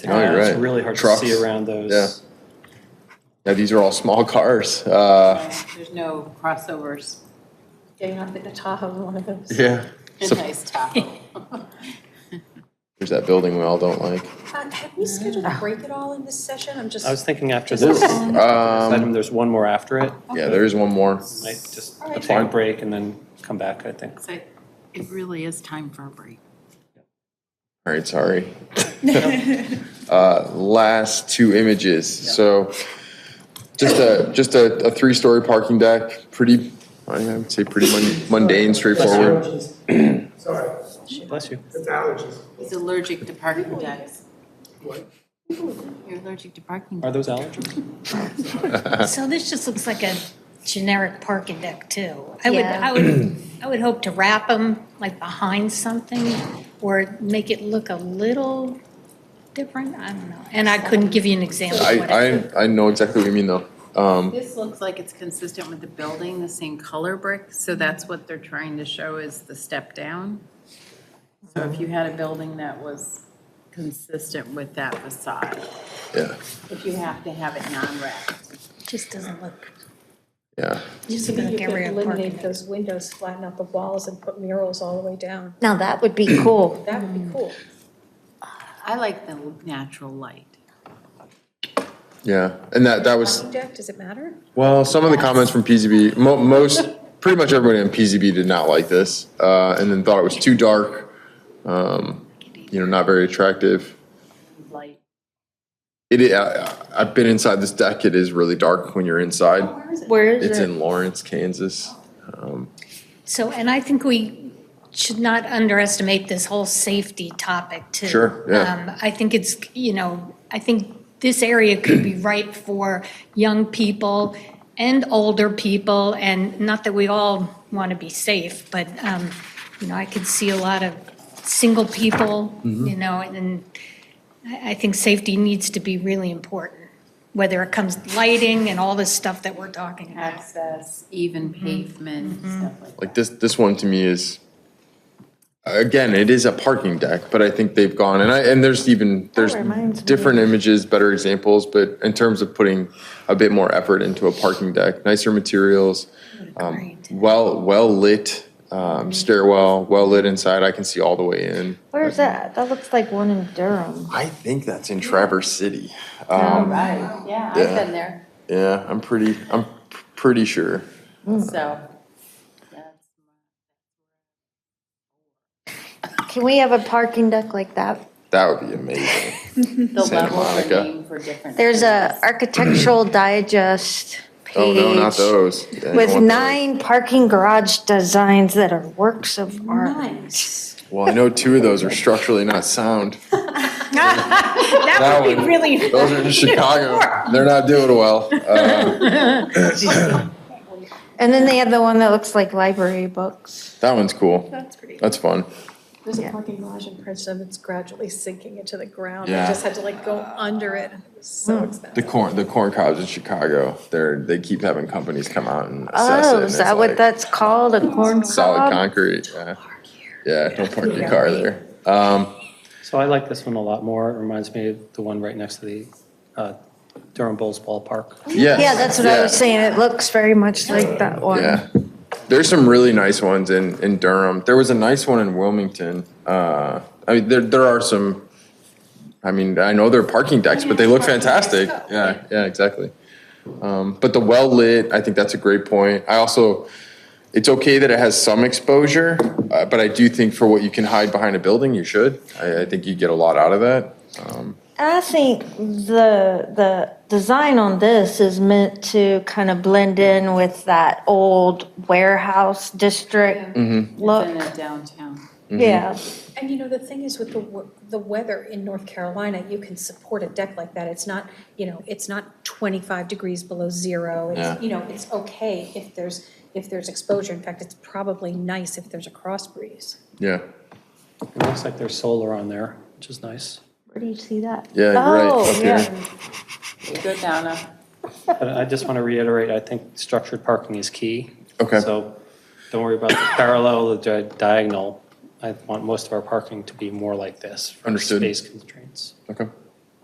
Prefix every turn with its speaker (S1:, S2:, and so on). S1: No, Oh, you're
S2: Uh, It's
S1: right.
S2: really hard to
S1: Trucks.
S2: see around those.
S1: Yeah. Now, these are all small cars. Uh,
S3: There's no crossovers.
S4: Getting off the Tahoe, one of those.
S1: yeah. So
S3: Nice Tahoe.
S1: there's that building we all don't like.
S4: Uh, Have we scheduled a break at all in this session? I'm just,
S2: I was thinking after
S4: Just-
S2: this
S4: Um,
S2: item,
S1: Um,
S2: there's one more after it.
S1: yeah, there is one more.
S2: Might just
S4: All right.
S2: take a break and then come back, I think.
S3: So it really is time for a break.
S1: All right, sorry. uh, last two images. So just a just a, a three story parking deck. Pretty, I would say, pretty mun- mundane, straightforward.
S5: Sorry,
S2: Bless you.
S5: it's allergies.
S3: He's allergic to parking decks.
S5: What?
S3: You're allergic to parking.
S2: Are
S3: decks.
S2: those allergens?
S6: So this just looks like a generic parking deck too. I would,
S4: Yeah.
S6: I would, I would hope to wrap them like behind something or make it look a little different, I don't know. And I couldn't give you an example of what I
S1: I, I I know exactly what you mean though. Um,
S3: This looks like it's consistent with the building, the same color brick, so that's what they're trying to show is the step down. So if you had a building that was consistent with that facade,
S1: yeah,
S3: if you have to have it non-wrapped.
S6: it just doesn't look,
S1: yeah.
S6: just
S4: you
S6: doesn't
S4: could
S6: look every parking
S4: eliminate
S6: deck.
S4: those windows, flatten out the walls and put murals all the way down.
S7: Now, that would be cool.
S4: That would be cool.
S3: I like the natural light.
S1: Yeah, and that that was
S4: Parking deck, does it matter?
S1: well. Some of the comments from PZB, mo- most, pretty much everybody in PZB did not like this, uh, and then thought it was too dark. Um, you know, not very attractive.
S3: Light.
S1: It, I, I- I've been inside this deck. It is really dark when you're inside.
S7: Where
S1: It's
S7: is it?
S1: in Lawrence, Kansas.
S6: So, and I think we should not underestimate this whole safety topic too.
S1: Sure, yeah.
S6: Um, I think it's, you know, I think this area could be ripe for young people and older people, and not that we all want to be safe, but, um, you know, I could see a lot of single people,
S1: Mm-hmm.
S6: you know, and then I, I think safety needs to be really important, whether it comes lighting and all this stuff that we're talking about.
S3: Access, even pavement, stuff like that.
S1: Like this, this one to me is, again, it is a parking deck, but I think they've gone, and I, and there's even, there's
S7: reminds me.
S1: different images, better examples, but in terms of putting a bit more effort into a parking deck, nicer materials, um,
S6: Great.
S1: well, well-lit,
S7: Mm-hmm.
S1: um, stairwell, well-lit inside, I can see all the way in.
S7: Where is that? That looks like one in Durham.
S1: I think that's in Traverse City.
S3: All right, yeah, I've
S1: Yeah.
S3: been there,
S1: Yeah, I'm pretty, I'm pretty sure.
S3: so. that's-
S7: Can we have a parking deck like that?
S1: That would be amazing.
S3: The
S1: Santa
S3: levels are
S1: Monica.
S3: named for different.
S7: There's a
S3: things.
S7: architectural digest page.
S1: Oh, no, not those. Yeah, you want
S7: With
S1: those.
S7: nine parking garage designs that are works of art.
S1: Well, I know two of those are structurally not sound.
S6: That would be really.
S1: Those are in Chicago. They're not doing well. Uh,
S7: And then they have the one that looks like library books.
S1: that one's cool.
S6: That's pretty.
S1: That's fun.
S4: There's a parking garage in Princeton that's gradually sinking into the ground. We
S1: Yeah.
S4: just had to like go under it. It was so expensive.
S1: The corn, the corn cobs in Chicago. They're they keep having companies come out and assess it.
S7: Oh,
S1: and
S7: is
S1: it's
S7: that what
S1: like
S7: that's called? A corn
S1: Solid
S7: cob?
S1: concrete. Yeah, yeah. Don't park your car there. Um,
S2: So I like this one a lot more. It reminds me of the one right next to the uh, Durham Bulls ballpark.
S1: yes,
S7: Yeah, that's what I
S1: yeah.
S7: was saying. It looks very much like that one.
S1: Yeah. There's some really nice ones in, in Durham. There was a nice one in Wilmington. Uh, I mean, there, there are some, I mean, I know they're Oh, parking decks, but they look fantastic. Yeah, yeah, exactly. Um, but the well lit, I think that's a great point. I also, it's okay that it has some exposure, uh, but I do think for what you can hide behind a building, you should. I, I think you get a lot out of that. Um,
S7: I think the the design on this is meant to kind of blend in with that old warehouse district
S1: Mm-hmm.
S3: It's in
S7: look.
S3: a downtown.
S7: Yeah.
S4: And you know, the thing is with the, we- the weather in North Carolina, you can support a deck like that. It's not, you know, it's not 25 degrees below
S1: Yeah.
S4: zero. It's, you know, it's okay if there's, if there's exposure. In fact, it's probably nice if there's a cross breeze.
S1: yeah.
S2: It looks like there's solar on there, which is nice.
S7: Where do you see that?
S1: Yeah, you're right,
S7: Oh,
S1: up here.
S7: yeah.
S3: Go down a,
S2: But I just want to reiterate, I think structured parking is key.
S1: Okay.
S2: So don't worry about the parallel, the di- diagonal. I want most of our parking to be more like this. for
S1: Understood.
S2: Space constraints.
S1: Okay.